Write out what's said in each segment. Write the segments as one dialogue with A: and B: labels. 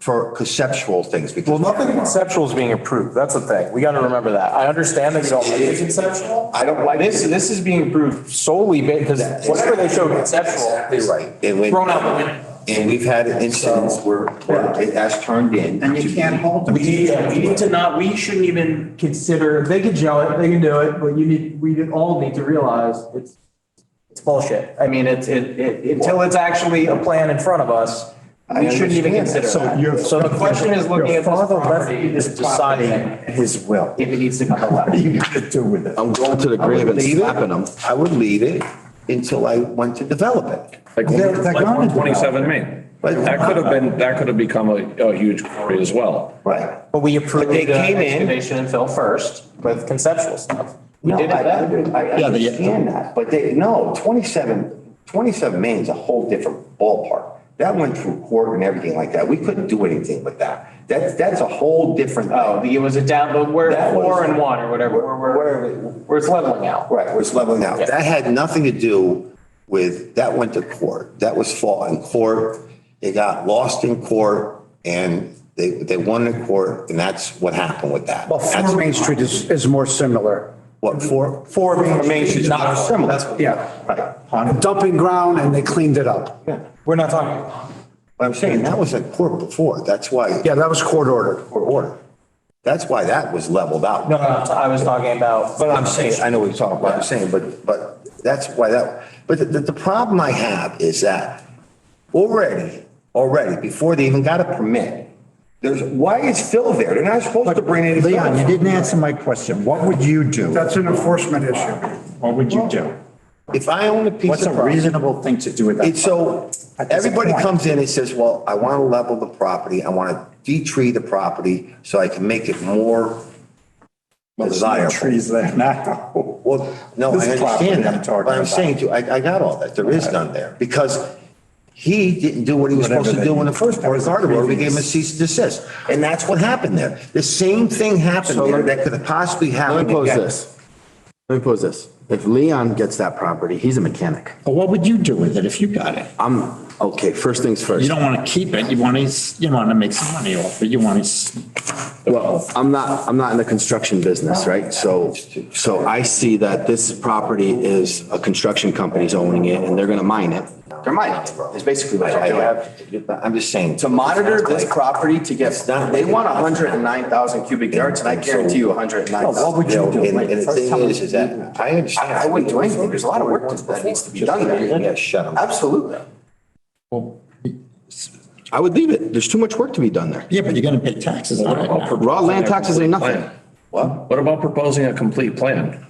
A: for conceptual things
B: Well,
A: because
B: nothing conceptual is being approved. That's the thing. We got to remember that. I understand that you don't like it conceptual.
A: I don't like
B: This, this is being approved solely because whatever they show conceptual
A: Exactly
B: is
A: right. And when,
B: thrown out the window.
A: and we've had incidents where, where it has turned in.
C: And you can't hold them.
D: We need, yeah, we need to not, we shouldn't even consider, they can gel it, they can do it, but you need, we all need to realize it's, it's bullshit. I mean, it's, it, it, until it's actually a plan in front of us, we shouldn't even consider that. So the question is looking at this property and deciding
E: his will.
D: if it needs to come allowed.
E: You got to do with it.
A: I'm going to the grave and slapping them. I would leave it until I went to develop it.
F: Like
E: They're- they're gonna do
F: 127 Main. That could have been, that could have become a, a huge quarry as well.
A: Right.
B: But we approved
A: they
B: the
A: came in-
B: excavation and fill first with conceptual stuff. We
A: No,
B: did it
A: I-
B: then.
A: I understand that, but they, no, 27, 27 Main's a whole different ballpark. That went through court and everything like that. We couldn't do anything with that. That's, that's a whole different.
D: Oh, the- it was a down, but where,
A: That was-
D: four and one or whatever, where, where,
A: Whatever,
D: where it's leveling out.
A: Right, was leveling out.
D: Yeah.
A: That had nothing to do with, that went to court. That was fought in court. It got lost in court and they, they won in court and that's what happened with that.
E: Well,
A: That's
E: Four Main Street is, is more similar.
A: What, four?
E: Four Main Street.
A: Not similar.
E: Yeah,
A: Right.
E: on a dumping ground and they cleaned it up.
B: We're not talking,
A: But I'm saying that was in court before. That's why,
E: Yeah, that was court ordered.
A: court order. That's why that was leveled out.
B: no, no, no, I was talking about.
A: But I'm saying, I know what you're talking about, I'm saying, but, but that's why that, but the, the problem I have is that already, already, before they even got a permit, there's, why is Phil there? They're not supposed to bring anything.
G: Leon, you didn't answer my question. What would you do?
E: That's an enforcement issue.
G: What would you do?
A: If I own a piece
G: What's
A: of
G: a
A: property,
G: reasonable thing to do with
A: it's
G: that?
A: so,
G: At this
A: everybody
G: point.
A: comes in and says, well, I want to level the property, I want to de-tree the property so I can make it more desirable.
G: Trees there now.
A: Well, no, I
G: This property I'm
A: understand that,
G: talking
A: but I'm
G: about.
A: saying to you, I, I got all that. There is none there because he didn't do what he was
G: Whatever
A: supposed to
G: they-
A: do in the first part of the order. We gave him a cease and desist. And that's what happened there. The same thing happened there that could have possibly
H: Let
A: happened
H: me pose
A: again.
H: this. Let me pose this. If Leon gets that property, he's a mechanic.
G: But what would you do with it if you got it?
H: I'm, okay, first things
G: You
H: first.
G: don't want to keep it. You want to, you want to make some money off it. You want to.
H: Well, I'm not, I'm not in the construction business, right? So, so I see that this property is a construction company's owning it and they're going to mine it. They're mining it. It's basically what
A: I
H: they're doing.
A: have, I'm just saying.
H: To monitor this property to get, they want 109,000 cubic yards and I guarantee you 109,000.
A: What would you do? And and the thing is, is that I understand.
H: I wouldn't do anything. There's a lot of work that needs to be done there.
A: Yeah, shut him.
H: Absolutely. I would leave it. There's too much work to be done there.
G: Yeah, but you're going to pay taxes on it. now.
H: Raw land taxes ain't nothing.
A: Well,
F: What about proposing a complete plan?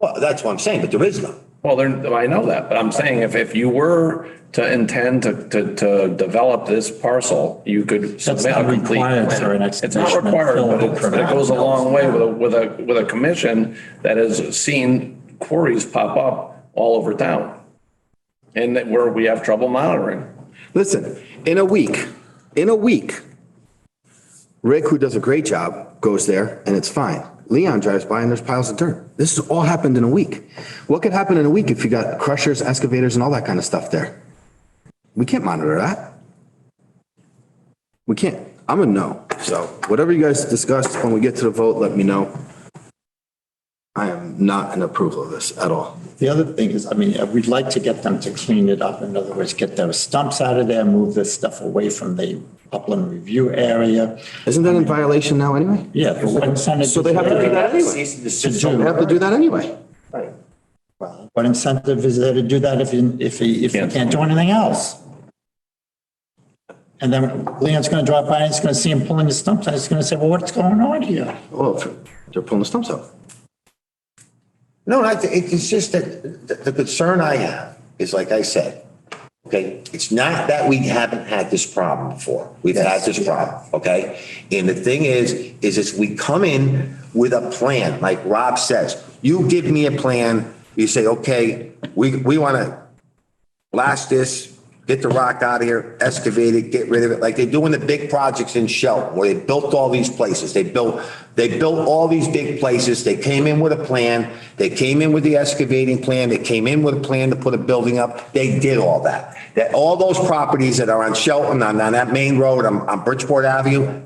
A: well, that's what I'm saying, but there is none.
F: Well, there, I know that, but I'm saying if, if you were to intend to, to, to develop this parcel, you could submit a
G: not
F: complete.
G: required for an
F: plan. It's not
G: excavation and
F: required,
G: fill
F: but it, but it goes a long way with a, with a, with a commission that has seen quarries pop up all over town. And that where we have trouble monitoring.
H: Listen, in a week, in a week, Rick, who does a great job, goes there and it's fine. Leon drives by and there's piles of dirt. This has all happened in a week. What could happen in a week if you got crushers, excavators and all that kind of stuff there? We can't monitor that. We can't. I'm a no. So whatever you guys discuss, when we get to the vote, let me know. I am not in approval of this at all.
G: The other thing is, I mean, uh, we'd like to get them to clean it up. In other words, get those stumps out of there, move this stuff away from the upland review area.
H: Isn't that in violation now anyway?
G: Yeah, but what incentive?
H: So they have to do that anyway.
G: To
H: They have to
G: do,
H: do that anyway.
G: what incentive is there to do that if you, if he, if he can't do anything else? And then Leon's gonna drive by and he's gonna see him pulling his stumps and he's gonna say, well, what's going on here?
H: Well, if they're pulling the stumps out.
A: No, I, thi- it's just that the- the concern I have is, like I said, okay, it's not that we haven't had this problem before. We've had this problem, okay? And the thing is, is it's we come in with a plan, like Rob says. You give me a plan, you say, okay, we, we want to blast this, get the rock out of here, excavate it, get rid of it, like they do in the big projects in Shelton, where they built all these places. They built, they built all these big places. They came in with a plan. They came in with the excavating plan. They came in with a plan to put a building up. They did all that. That, all those properties that are on Shelton, on, on that main road, on, on Bridgeport Avenue,